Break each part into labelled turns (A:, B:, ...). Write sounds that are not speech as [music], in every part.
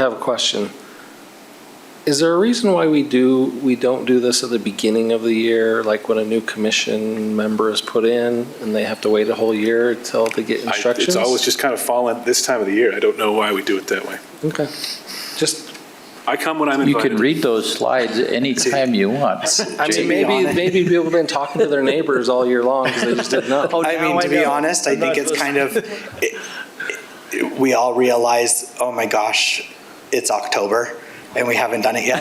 A: I have a question. Is there a reason why we do, we don't do this at the beginning of the year, like when a new commission member is put in and they have to wait a whole year till they get
B: I-
A: instructions?
B: It's always just kind of fallen this time of the year. I don't know why we do it that way.
A: Okay. Just,
B: I come when I'm
C: You
B: invited.
C: can read those slides anytime you want.
A: I mean, maybe, maybe people have been talking to their neighbors all year long because they just didn't
D: [laughs]
A: Oh, know.
D: Oh, I mean, to be honest, I think it's kind of, it- it- we all realize, oh my gosh, it's October and we haven't done
A: [laughs]
D: it yet,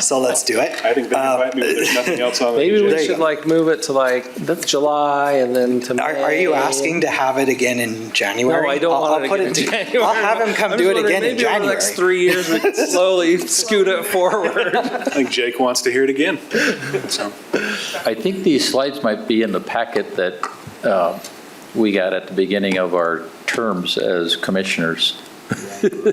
D: so let's do it.
B: I think they
D: Um,
B: invite me when there's nothing else on the
A: Maybe
B: agenda.
A: we
D: you
A: should
D: go.
A: like move it to like July and then to May.
D: Um, Are, are you asking to have it again in January?
A: No, I don't
D: I'll-
A: want
D: I'll
A: it
D: put
A: again in
D: to-
A: January.
D: I'll have him come
A: I'm
D: do
A: just
D: it again
A: wondering,
D: in
A: Maybe over the
D: January.
A: next three years,
D: [laughs]
A: we can slowly scoot it forward.
B: I think Jake wants to hear it again. So,
C: I think these slides might be in the packet that uh, we got at the beginning of our terms as commissioners.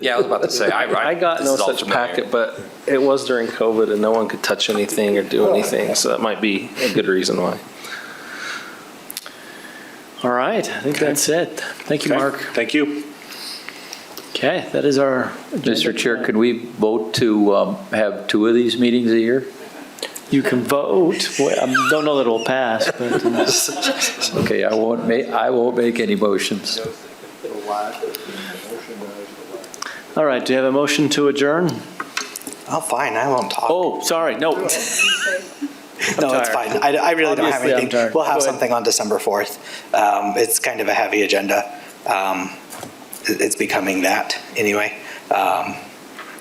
E: Yeah, I was about to say, I, I.
A: I got
E: this
A: no
E: is all
A: such
E: familiar.
A: packet, but it was during COVID and no one could touch anything or do anything, so that might be a good reason why.
F: All right, I think that's it. Thank you,
B: okay.
F: Mark.
B: Thank you.
F: Okay, that is our.
C: Mr. Chair, could we vote to um, have two of these meetings a year?
F: You can vote. Well, I don't know that it'll pass, but uh, [laughs]
C: Okay, I won't make, I won't make any motions.
F: all right, do you have a motion to adjourn?
D: Oh, fine, I won't talk.
F: Oh, sorry, no.
D: No, it's
F: tired.
D: fine. I, I really don't have
F: Obviously, I'm
D: anything.
F: tired.
D: We'll have
F: Go ahead.
D: something on December 4th. Um, It's kind of a heavy agenda. Um, it- It's becoming that anyway. Um,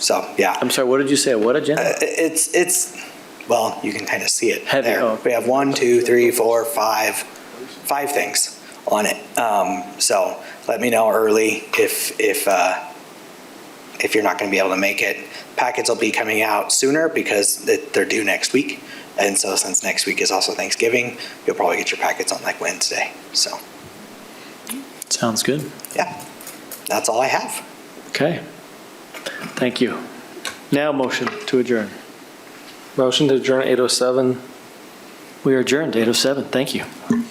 D: So, yeah.
F: I'm sorry, what did you say? What agenda?
D: I- It's, it's, well, you can kind of see it
F: Heavy,
D: there.
F: oh.
D: We have one, two, three, four, five, five things on it. Um, So let me know early if, if, uh, if you're not going to be able to make it. Packets will be coming out sooner because it- they're due next week. And so since next week is also Thanksgiving, you'll probably get your packets on like Wednesday. So,
F: Sounds good.
D: yeah, that's all I have.
F: Okay. Thank you. Now motion to adjourn.
A: Motion to adjourn 807.
F: We are adjourned, 8:07. Thank you.